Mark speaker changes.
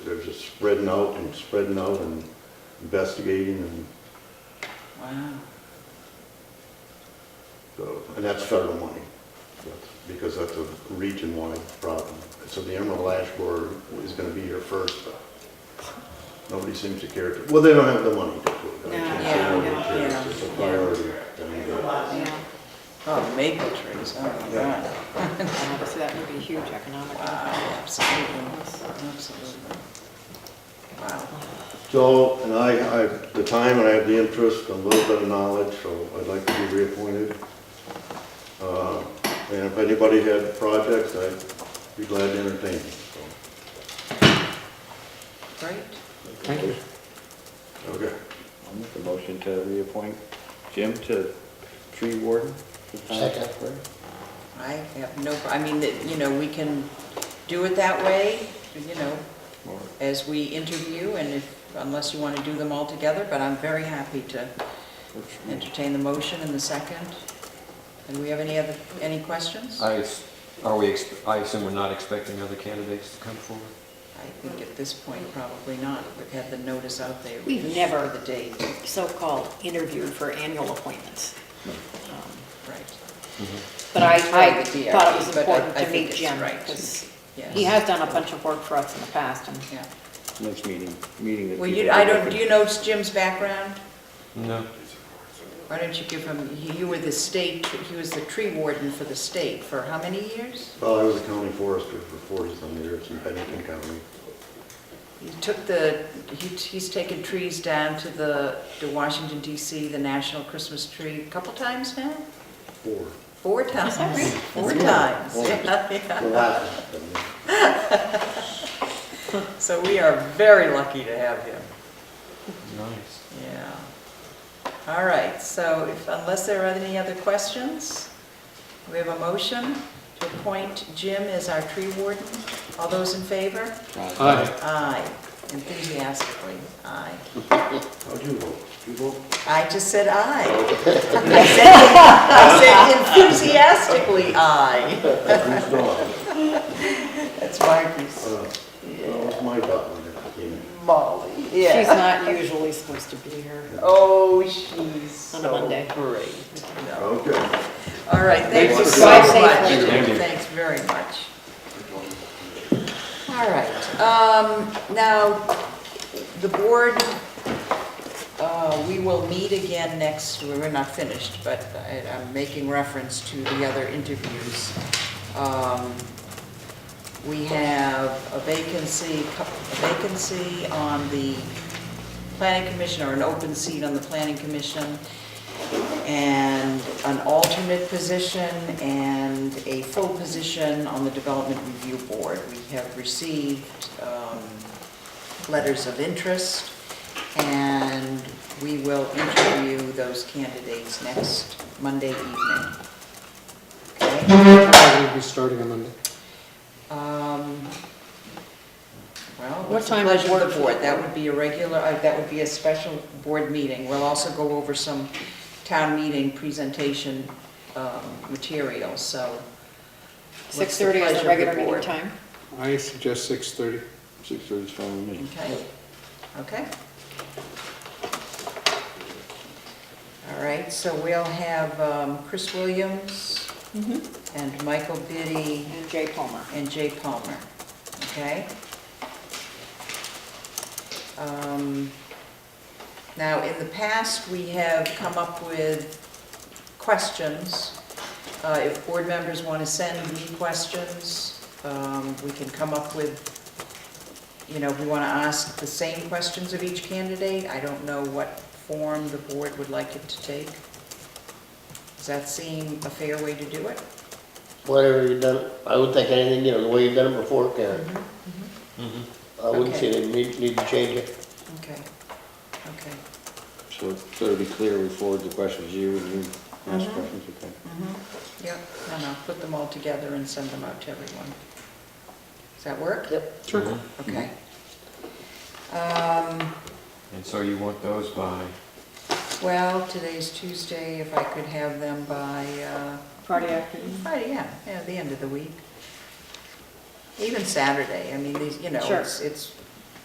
Speaker 1: they're just spreading out and spreading out and investigating and
Speaker 2: Wow.
Speaker 1: so, and that's federal money. That's- Because that's a region-wide problem. So the Emerald Ash Board is gonna be here first, but nobody seems to care to, well, they don't have the money to put it. I
Speaker 2: No,
Speaker 1: can't say
Speaker 2: yeah,
Speaker 1: nobody
Speaker 2: no,
Speaker 1: cares.
Speaker 2: yeah,
Speaker 1: It's just a
Speaker 2: yeah.
Speaker 1: priority. thing, but-
Speaker 3: Yeah,
Speaker 2: Oh, maple trees, oh my
Speaker 1: Yeah.
Speaker 2: God.
Speaker 3: Uh, so that would be a huge economic impact.
Speaker 2: Absolutely, absolutely. Wow.
Speaker 1: So, and I, I have the time and I have the interest, and a little bit of knowledge, so I'd like to be reappointed. Uh, And if anybody had projects, I'd be glad to entertain them. so.
Speaker 2: Great.
Speaker 4: Thank you.
Speaker 1: Okay.
Speaker 4: I'll make a motion to reappoint Jim to tree warden.
Speaker 5: Second.
Speaker 2: I have no, I mean, that, you know, we can do it that way, you know,
Speaker 4: Or-
Speaker 2: as we interview, and if, unless you want to do them all together, but I'm very happy to entertain the motion in the second. And we have any other, any questions?
Speaker 6: I, ex- are we, ex- I assume we're not expecting other candidates to come forward?
Speaker 2: I think at this point, probably not. We've had the notice out there.
Speaker 3: We've never-
Speaker 2: The date,
Speaker 3: So-called interview for annual appointments. Um,
Speaker 2: right,
Speaker 3: But I, I
Speaker 2: Right, the DRB,
Speaker 3: thought it was
Speaker 2: but I-
Speaker 3: important
Speaker 2: I
Speaker 3: to
Speaker 2: think
Speaker 3: meet
Speaker 2: it's
Speaker 3: Jim,
Speaker 2: right.
Speaker 3: because
Speaker 2: yes.
Speaker 3: he has done a bunch of work for us in the past, and
Speaker 2: Yeah.
Speaker 4: Next meeting, meeting the.
Speaker 2: Well, you,
Speaker 4: people.
Speaker 2: I don't, do you know Jim's background?
Speaker 6: No.
Speaker 2: Why don't you give him, he- you were the state, he was the tree warden for the state for how many years?
Speaker 1: Well, I was a county forester for forty-some years in Bennington County.
Speaker 2: He took the, he- he's taken trees down to the, to Washington DC, the national Christmas tree, a couple times now?
Speaker 1: Four.
Speaker 2: Four times.
Speaker 3: right?
Speaker 2: Four
Speaker 1: That's
Speaker 2: times.
Speaker 1: good.
Speaker 2: Yeah, yeah.
Speaker 1: The last of them.
Speaker 2: So we are very lucky to have him.
Speaker 6: Nice.
Speaker 2: Yeah. All right, so if, unless there are any other questions, we have a motion to appoint Jim as our tree warden. All those in favor?
Speaker 6: Aye.
Speaker 2: Aye, enthusiastically, aye.
Speaker 1: How'd you vote? You vote?
Speaker 2: I just said aye. I said- I said enthusiastically aye.
Speaker 1: Whose dog?
Speaker 2: That's Marty's.
Speaker 1: Uh, Well, it was my dog when it came in.
Speaker 2: Molly,
Speaker 3: she's
Speaker 2: yeah.
Speaker 3: not usually supposed to be here.
Speaker 2: Oh, she's
Speaker 3: On a
Speaker 2: so
Speaker 3: Monday.
Speaker 2: great. No.
Speaker 1: Okay.
Speaker 2: All right, thank you
Speaker 1: Thanks
Speaker 2: so
Speaker 1: for
Speaker 2: much.
Speaker 3: coming.
Speaker 6: Thank you.
Speaker 2: Thanks very much. All right, um, now, the board, uh, we will meet again next, we're not finished, but I- I'm making reference to the other interviews. Um, We have a vacancy, a vacancy on the planning commission, or an open seat on the planning commission, and an alternate position, and a full position on the development review board. We have received um, letters of interest, and we will interview those candidates next Monday evening. Okay?
Speaker 7: I will be starting on Monday.
Speaker 2: Um, Well,
Speaker 3: What
Speaker 2: what's the
Speaker 3: time does
Speaker 2: pleasure of
Speaker 3: work
Speaker 2: the
Speaker 3: for
Speaker 2: board?
Speaker 3: you?
Speaker 2: That would be a regular, uh, that would be a special board meeting. We'll also go over some town meeting presentation um, material, so. what's the pleasure
Speaker 3: 6:30 is
Speaker 2: of
Speaker 3: the
Speaker 2: the
Speaker 3: regular meeting
Speaker 2: board?
Speaker 3: time.
Speaker 7: I suggest 6:30.
Speaker 4: Six thirty's fine with me.
Speaker 2: Okay, okay. All right, so we'll have um, Chris Williams and Michael Biddy
Speaker 3: And Jay Palmer.
Speaker 2: and Jay Palmer, okay? Um, Now, in the past, we have come up with questions. Uh, If board members want to send me questions, um, we can come up with, you know, if we want to ask the same questions of each candidate. I don't know what form the board would like it to take. Does that seem a fair way to do it?
Speaker 5: Whatever you've done, I would think anything, you know, the way you've done it before, Karen. I wouldn't see
Speaker 2: Okay.
Speaker 5: they need, need to change it.
Speaker 2: Okay, okay.
Speaker 4: So so to be clear, we forward the questions to you and you ask
Speaker 2: Mhm.
Speaker 4: questions, okay?
Speaker 2: Yep, and I'll put them all together and send them out to everyone. Does that work? Yep.
Speaker 7: Sure.
Speaker 2: Okay. Um,
Speaker 6: And so you want those by,
Speaker 2: Well, today's Tuesday, if I could have them by uh,
Speaker 3: Friday afternoon.
Speaker 2: Friday, yeah, yeah, the end of the week. Even Saturday, I mean, these, you know,
Speaker 3: Sure.
Speaker 2: it's, it's